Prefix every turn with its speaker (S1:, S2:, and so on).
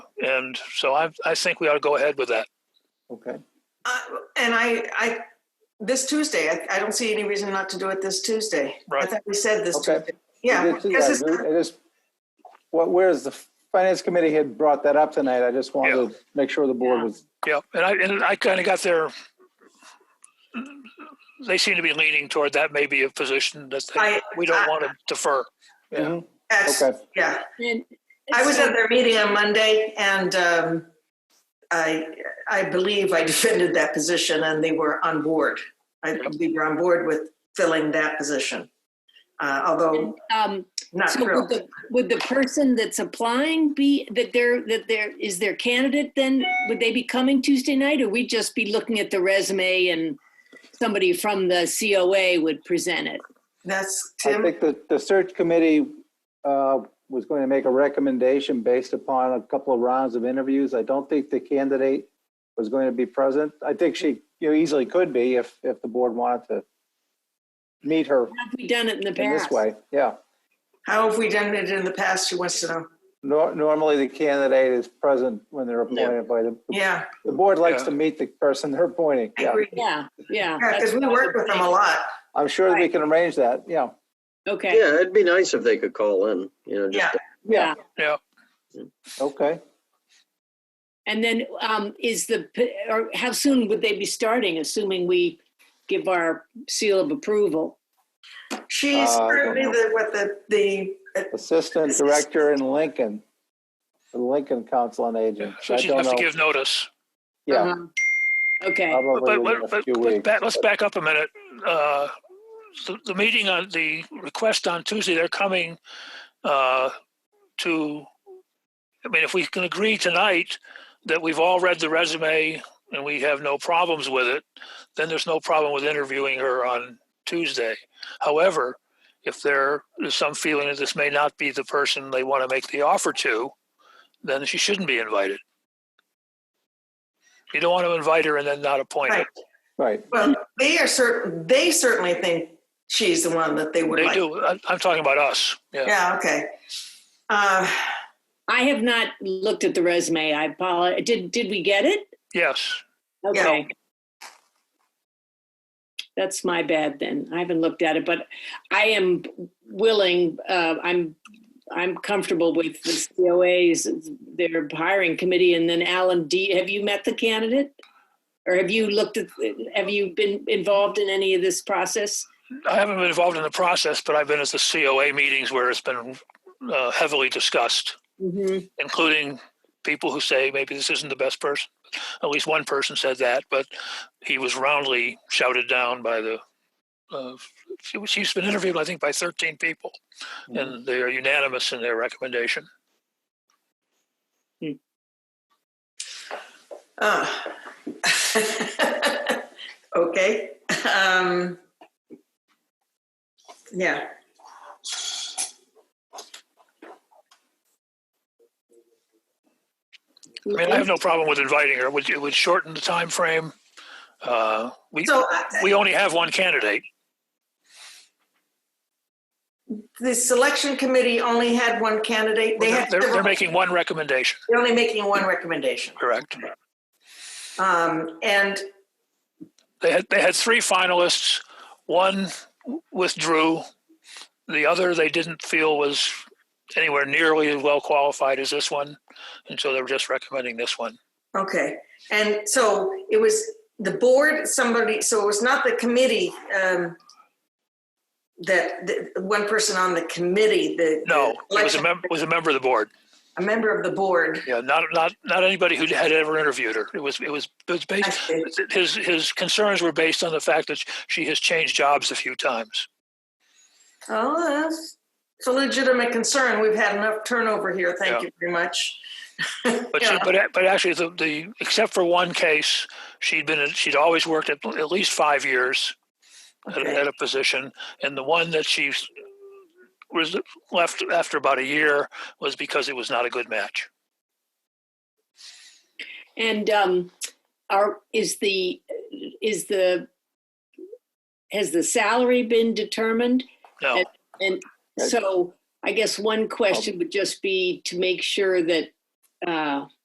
S1: And so I, I think we ought to go ahead with that.
S2: Okay,
S3: Uh, And I, I, this Tuesday, I, I don't see any reason not to do it this Tuesday. I
S1: Right.
S3: thought we said this
S2: Okay.
S3: Tuesday. Yeah.
S2: It is-
S3: because it's-
S2: It is, well, whereas the finance committee had brought that up tonight, I just wanted to make sure the board
S3: Yeah.
S2: was,
S1: Yeah, and I, and I kind of got their, they seem to be leaning toward that may be a position that they,
S3: I-
S1: we don't
S3: I-
S1: want to defer. Yeah.
S2: Mhm,
S3: that's-
S2: okay,
S3: Yeah.
S4: And
S3: I was
S4: so-
S3: at their meeting on Monday, and um, I, I believe I defended that position, and they were on board. I believe you're on board with filling that position, uh, although
S4: Um,
S3: not
S4: so would
S3: thrilled.
S4: the, would the person that's applying be, that they're, that they're, is their candidate then, would they be coming Tuesday night? Or we'd just be looking at the resume and somebody from the COA would present it?
S3: That's
S2: I
S3: Tim.
S2: think that the search committee uh, was going to make a recommendation based upon a couple of rounds of interviews. I don't think the candidate was going to be present. I think she, you know, easily could be if, if the board wanted to meet her
S4: Have we done it in the
S2: in
S4: past?
S2: this way, yeah.
S3: How have we done it in the past? Who wants to know?
S2: Nor- Normally, the candidate is present when they're appointed by the,
S3: Yeah,
S2: the board likes
S1: Yeah.
S2: to meet the person they're appointing.
S3: I
S2: yeah.
S3: agree. Yeah,
S4: Yeah, yeah.
S3: because we work with them a lot.
S2: I'm sure we
S4: Right.
S2: can arrange that, yeah.
S4: Okay,
S5: Yeah, it'd be nice if they could call in, you know,
S3: Yeah.
S5: just,
S4: yeah.
S2: Okay,
S4: And then um, is the, p- or how soon would they be starting, assuming we give our seal of approval?
S3: She's
S2: Uh, I don't
S3: currently
S2: know.
S3: the, what the, the, uh,
S2: Assistant Director in Lincoln, the Lincoln Council on Aging.
S1: So
S2: I
S1: she'd
S2: don't
S1: have to
S2: know.
S1: give notice.
S2: Yeah,
S4: Uh-huh. Okay,
S1: But,
S2: probably
S1: but,
S2: in
S1: but,
S2: a
S1: but,
S2: few
S1: but
S2: weeks.
S1: back, let's back up a minute. Uh, the, the meeting on, the request on Tuesday, they're coming, uh, to, I mean, if we can agree tonight that we've all read the resume and we have no problems with it, then there's no problem with interviewing her on Tuesday. However, if there is some feeling that this may not be the person they want to make the offer to, then she shouldn't be invited. You don't want to invite her and then not appoint her.
S3: right.
S2: Right,
S3: Well, they are certain, they certainly think she's the one that they would
S1: They
S3: like.
S1: do. I- I'm talking about us. Yeah.
S3: Yeah, okay. Uh,
S4: I have not looked at the resume. I apologize. Did, did we get it?
S1: Yes.
S4: Okay. That's my bad then. I haven't looked at it, but I am willing, uh, I'm, I'm comfortable with the COA's, their hiring committee, and then Alan D, have you met the candidate? Or have you looked at, have you been involved in any of this process?
S1: I haven't been involved in the process, but I've been at the COA meetings where it's been uh, heavily discussed,
S4: Mm-hmm.
S1: including people who say maybe this isn't the best person. At least one person said that, but he was roundly shouted down by the. Uh, she, was- she's been interviewed, I think, by 13 people,
S3: Hmm.
S1: and they are unanimous in their recommendation.
S3: Oh. okay. Um, yeah.
S1: I mean, I have no problem with inviting her. It would, it would shorten the time frame. Uh, we
S3: So
S1: we only have one candidate.
S3: the selection committee only had one candidate. They
S1: They're,
S3: had
S1: they're, they're
S3: several-
S1: making one recommendation,
S3: they're only making one recommendation.
S1: correct?
S3: Um, and
S1: They had, they had three finalists. One withdrew. The other they didn't feel was anywhere nearly as well qualified as this one. And so they were just recommending this one.
S3: okay. And so it was the board, somebody, so it was not the committee um, that the, one person on the committee, the
S1: No,
S3: the
S1: it was a
S3: selection-
S1: member, was a member of the board.
S3: a member of the board.
S1: Yeah, not, not, not anybody who had ever interviewed her. It was, it was, it was
S3: I
S1: based,
S3: see.
S1: his, his concerns were based on the fact that she has changed jobs a few times.
S3: Oh, that's it's a legitimate concern. We've had enough turnover here. Thank
S1: Yeah.
S3: you very much.
S1: But
S3: Yeah.
S1: she, but but actually, the, the except for one case, she'd been she'd always worked at at least five years at,
S3: Okay.
S1: at a position, and the one that she was left after about a year was because it was not a good match.
S4: And um, are, is the, is the, has the salary been determined?
S1: No,
S2: Right.
S4: So I guess one question would just be to make sure that uh,